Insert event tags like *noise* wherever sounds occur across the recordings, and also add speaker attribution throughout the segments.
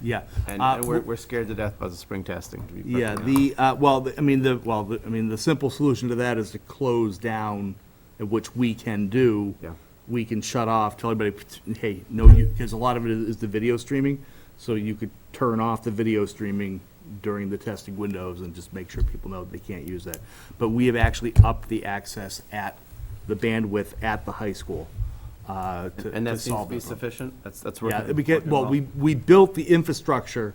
Speaker 1: yeah.
Speaker 2: And
Speaker 1: Uh,
Speaker 2: and we're, we're scared to death about the spring testing. to be perfectly
Speaker 1: Yeah,
Speaker 2: honest.
Speaker 1: the, uh, well, the- I mean, the, well, the- I mean, the simple solution to that is to close down, uh, which we can do.
Speaker 2: Yeah.
Speaker 1: We can shut off, tell everybody, hey, no, you, because a lot of it is is the video streaming, so you could turn off the video streaming during the testing windows and just make sure people know they can't use that. But we have actually upped the access at, the bandwidth at the high school, uh, to
Speaker 2: And
Speaker 1: to
Speaker 2: that seems to
Speaker 1: solve
Speaker 2: be
Speaker 1: this one.
Speaker 2: sufficient? That's, that's
Speaker 1: Yeah,
Speaker 2: working.
Speaker 1: because,
Speaker 2: working
Speaker 1: well, we, we built the infrastructure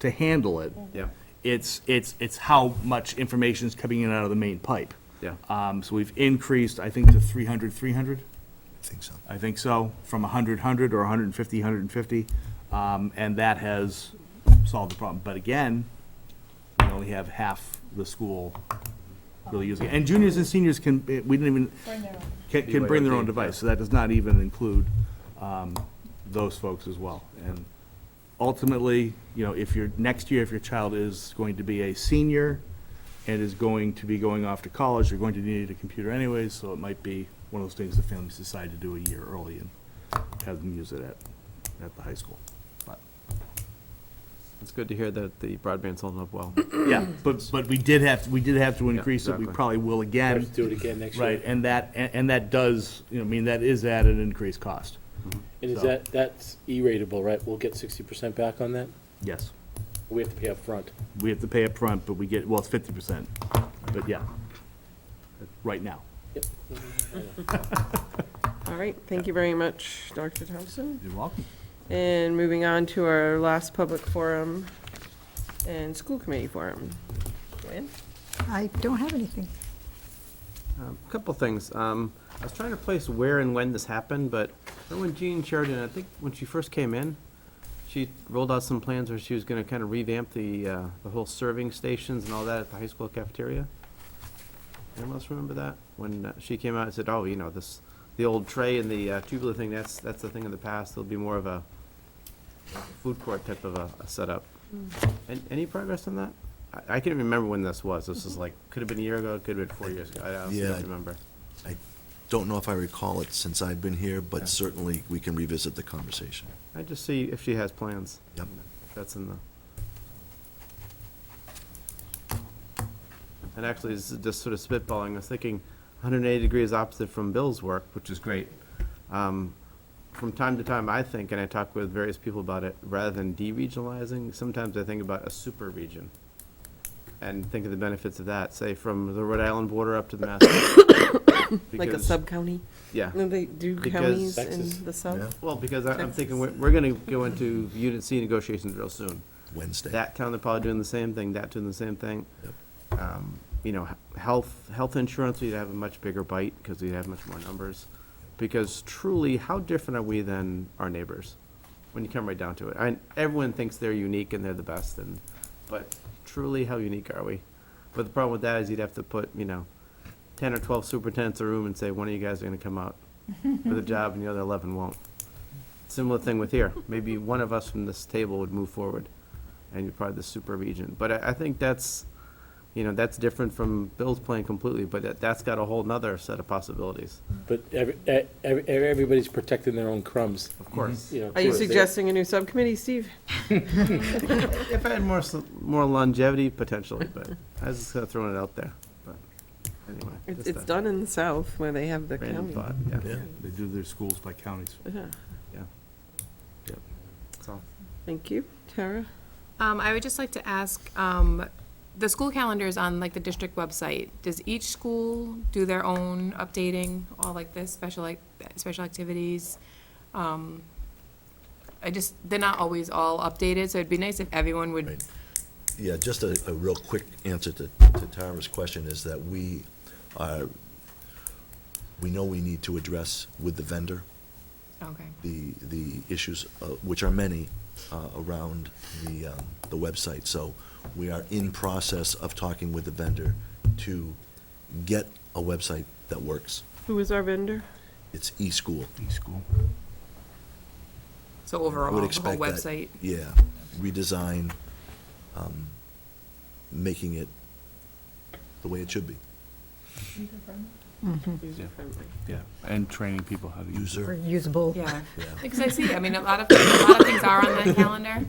Speaker 1: to handle it.
Speaker 2: Yeah.
Speaker 1: It's, it's, it's how much information is coming in and out of the main pipe.
Speaker 2: Yeah.
Speaker 1: Um, so we've increased, I think, to 300, 300?
Speaker 3: I think so.
Speaker 1: I think so, from 100, 100, or 150, 150. Um, and that has solved the problem. But again, we only have half the school really using it. And juniors and seniors can, eh, we didn't even,
Speaker 4: Bring their own.
Speaker 1: can, can bring their own device, so that does not even include, um, those folks as well. And ultimately, you know, if your, next year, if your child is going to be a senior and is going to be going off to college, you're going to need a computer anyways, so it might be one of those things the families decide to do a year early and have them use it at, at the high school. But,
Speaker 2: It's good to hear that the broadband's holding up well.
Speaker 1: yeah, *clears throat* but, but we did have, we did have to increase it, we
Speaker 2: exactly.
Speaker 1: probably will again.
Speaker 5: Have to do it again next year.
Speaker 1: Right, and that, and, and that does, you know, I mean, that is at an increased cost,
Speaker 5: And is
Speaker 1: So-
Speaker 5: that, that's E-ratable, right? We'll get sixty percent back on that?
Speaker 1: yes.
Speaker 5: We have to pay up front.
Speaker 1: We have to pay up front, but we get, well, it's fifty percent, but yeah, right now.
Speaker 5: Yep.
Speaker 6: All right, thank you very much, Dr. Thompson.
Speaker 1: You're welcome.
Speaker 6: And moving on to our last public forum and school committee forum. Joanne?
Speaker 7: I don't have anything.
Speaker 2: Um, Couple things. Um, I was trying to place where and when this happened, but I know when Jean Sheridan, I think when she first came in, she rolled out some plans where she was gonna kind of revamp the, uh, the whole serving stations and all that at the high school cafeteria. Anyone else remember that? When uh, she came out and said, oh, you know, this, the old tray and the uh, tubular thing, that's, that's the thing of the past. There'll be more of a like a food court type of a a setup. And any progress on that? I, I can't remember when this was. This is like, could have been a year ago, could have been four years ago. I honestly
Speaker 3: Yeah.
Speaker 2: don't remember.
Speaker 3: I don't know if I recall it since I've been here, but certainly we can revisit the conversation.
Speaker 2: I just see if she has plans.
Speaker 3: Yep.
Speaker 2: That's in the. And actually, this is just sort of spitballing. I was thinking 180 degrees opposite from Bill's work, which is great. Um, From time to time, I think, and I talk with various people about it, rather than deregionalizing, sometimes I think about a super region and think of the benefits of that, say from the Rhode Island border up to the Mass.
Speaker 6: *coughs* Like a
Speaker 2: Because-
Speaker 6: sub-county?
Speaker 2: Yeah.
Speaker 6: No, They do
Speaker 2: Because-
Speaker 6: counties in
Speaker 5: Texas.
Speaker 6: the sub?
Speaker 2: Well, because I- I'm thinking, we're, we're gonna go into Unit C negotiations real soon.
Speaker 3: Wednesday.
Speaker 2: That town, they're probably doing the same thing, that doing the same thing.
Speaker 3: Yep.
Speaker 2: Um, You know, he- health, health insurance, we'd have a much bigger bite, because we'd have much more numbers. Because truly, how different are we than our neighbors? When you come right down to it, and everyone thinks they're unique and they're the best, and, but truly, how unique are we? But the problem with that is you'd have to put, you know, ten or twelve superintendents in a room and say, one of you guys are gonna come out with a job and the other eleven won't. Similar thing with here. Maybe one of us from this table would move forward, and you're probably the super region. But I, I think that's, you know, that's different from Bill's plan completely, but that, that's got a whole nother set of possibilities,
Speaker 5: But every, e- every, everybody's protecting their own crumbs,
Speaker 2: of course.
Speaker 5: you know.
Speaker 6: Are you
Speaker 5: so they-
Speaker 6: suggesting a new subcommittee, Steve?
Speaker 2: If I had more, s- more longevity, potentially, but I was just kinda throwing it out there, but anyway.
Speaker 6: It's
Speaker 2: just
Speaker 6: it's
Speaker 2: a
Speaker 6: done in the south where they have the
Speaker 2: Random
Speaker 6: county.
Speaker 2: thought, yeah,
Speaker 3: Yeah.
Speaker 1: They do their schools by counties.
Speaker 6: Yeah.
Speaker 2: yeah. Yep, that's all.
Speaker 6: Thank you. Tara?
Speaker 8: Um, I would just like to ask, um, the school calendar is on like the district website. Does each school do their own updating, all like this, special, like, special activities? Um, I just, they're not always all updated, so it'd be nice if everyone would,
Speaker 3: Right. Yeah, just a, a real quick answer to, to Tara's question is that we are, we know we need to address with the vendor
Speaker 8: okay,
Speaker 3: the, the issues, uh, which are many, uh, around the, um, the website. So we are in process of talking with the vendor to get a website that works.
Speaker 6: Who is our vendor?
Speaker 3: It's eSchool.
Speaker 1: E-school.
Speaker 8: so
Speaker 3: I
Speaker 8: overall,
Speaker 3: would
Speaker 8: the whole
Speaker 3: expect that.
Speaker 8: website.
Speaker 3: Yeah, redesign, um, making it the way it should be,
Speaker 6: User friendly.
Speaker 1: Yeah, and training people how to use it.
Speaker 3: user.
Speaker 7: Usable.
Speaker 8: Yeah,
Speaker 3: Yeah.
Speaker 8: because I see, I mean, a lot of, a lot of things are on that calendar.